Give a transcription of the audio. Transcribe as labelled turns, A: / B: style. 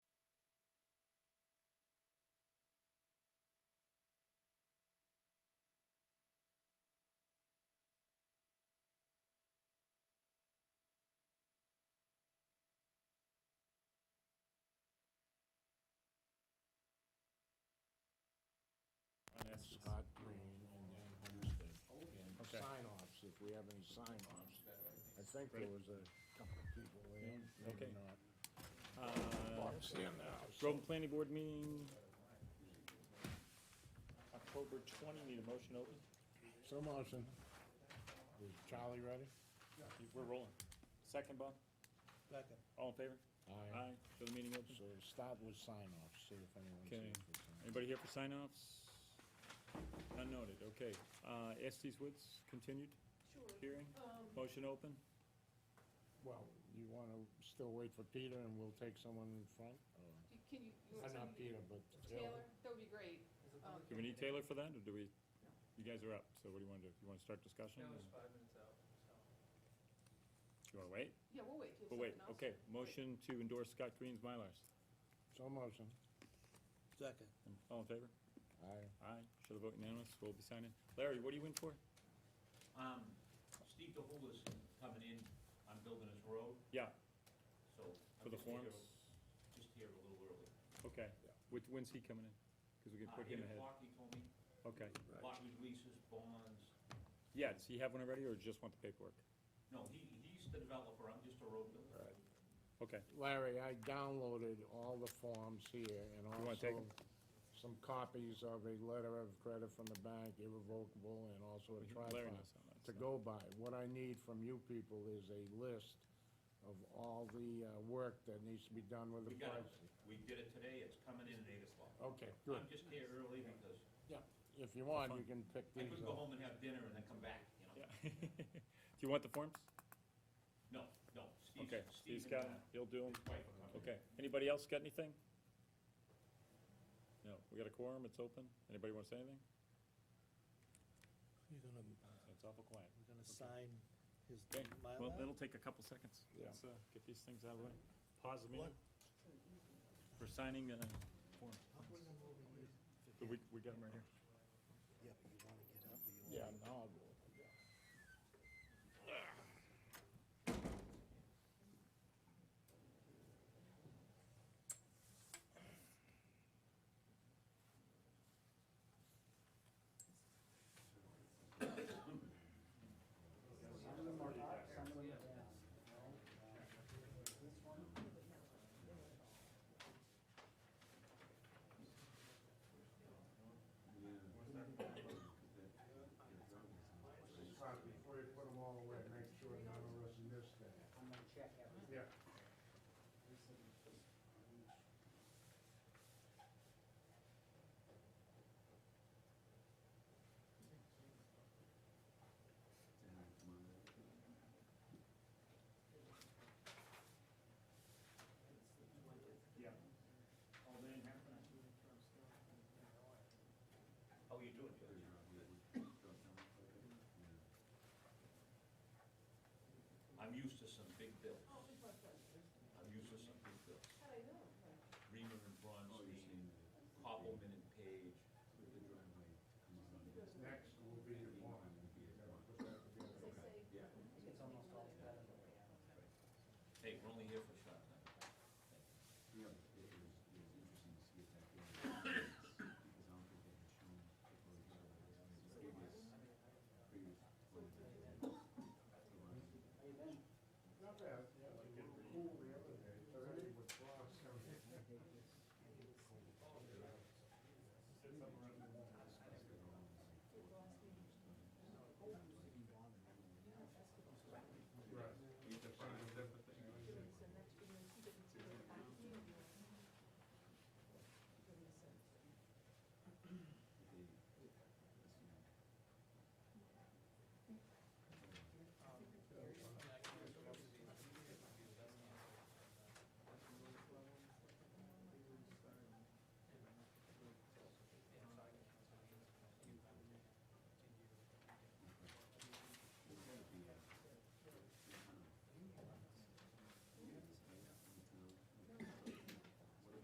A: Todd Green, and then who's the,
B: Okay.
A: sign offs, if we have any sign offs. I think there was a couple of people there,
B: Okay.
A: maybe not.
B: Uh,
A: Bob's in the house.
B: Groveland Planning Board meeting, October twenty, need a motion open?
A: So motion. Is Charlie ready?
B: We're rolling. Second, Bob?
C: Second.
B: All in favor?
A: Aye.
B: Aye, show the meeting open.
A: So start with sign offs, see if anyone
B: Okay.
A: sees the sign.
B: Anybody here for sign-offs? None noted, okay. Uh, Estes Woods, continued
D: Sure.
B: hearing,
D: Um,
B: motion open?
A: Well, you wanna still wait for Peter and we'll take someone in front? or-
D: you- can you, you
A: Uh,
D: want
A: Not
D: somebody,
A: Peter, but
D: Taylor, that would be great. Um,
B: Do we need Taylor for that, or do we, you guys are up, so what do you wanna do? You wanna start discussion?
C: Now
B: or-
C: it's five minutes out, so.
B: You wanna wait?
D: Yeah, we'll wait. till
B: But wait,
D: someone else-
B: okay, motion to endorse Scott Green's Mylars.
A: So motion.
C: Second.
B: All in favor?
A: Aye.
B: Aye, show the vote unanimous, we'll be signing. Larry, what are you in for?
E: Um, Steve DeHul is coming in, I'm building his road,
B: Yeah,
E: so. I'm
B: for the
E: just here-
B: forms?
E: Just here a little early.
B: Okay, Which- when's he coming in? Because we can
E: Uh,
B: put him
E: eight
B: ahead.
E: o'clock, he told me,
B: Okay,
E: lot releases, bonds,
B: yeah, does he have one already, or just want the paperwork?
E: no, he, he's the developer, I'm just a road builder.
A: Right.
B: Okay,
A: Larry, I downloaded all the forms here and
B: wanna take
A: also
B: 'em?
A: some copies of a letter of credit from the bank, irrevocable, and also a
B: Larry
A: tripod
B: knows all that,
A: to
B: so-
A: go by. What I need from you people is a list of all the uh, work that needs to be done with the
E: We got it,
A: price.
E: we did it today, it's coming in at eight o'clock.
A: Okay, good.
E: I'm just here early because
A: If you want, you
B: fine.
A: can pick
E: I
A: these
E: could go
A: up.
E: home and have dinner and then come back, you know?
B: yeah. Do you want the forms?
E: No, no, Steve,
B: Okay,
E: Steve
B: Steve's
E: and
B: got,
E: uh,
B: 'em. he'll do them.
E: his wife are coming.
B: Okay, anybody else got anything? No, we got a quorum, it's open. Anybody want to say anything?
C: You're gonna,
B: It's awful quiet.
C: we're gonna sign his
B: Okay, well,
C: Mylar?
B: that'll take a couple seconds.
A: Yeah.
B: Let's, uh, get these things out of the way. Pause the meeting.
C: What?
B: We're signing, uh, form. But We, we got them right here.
C: Yeah, but you wanna get up, or you wanna?
A: Yeah, now I'll do it. Before you put them all away, make sure none of us missed that.
F: I'm gonna check everything.
A: Yeah.
E: Oh, How are you doing, Judge? I'm used to some big bills. I'm used to some big bills. Reamer and Bronstein, Koppelman and Page.
A: Next will be the one.
F: It's almost all together the way out.
E: Hey, we're only here for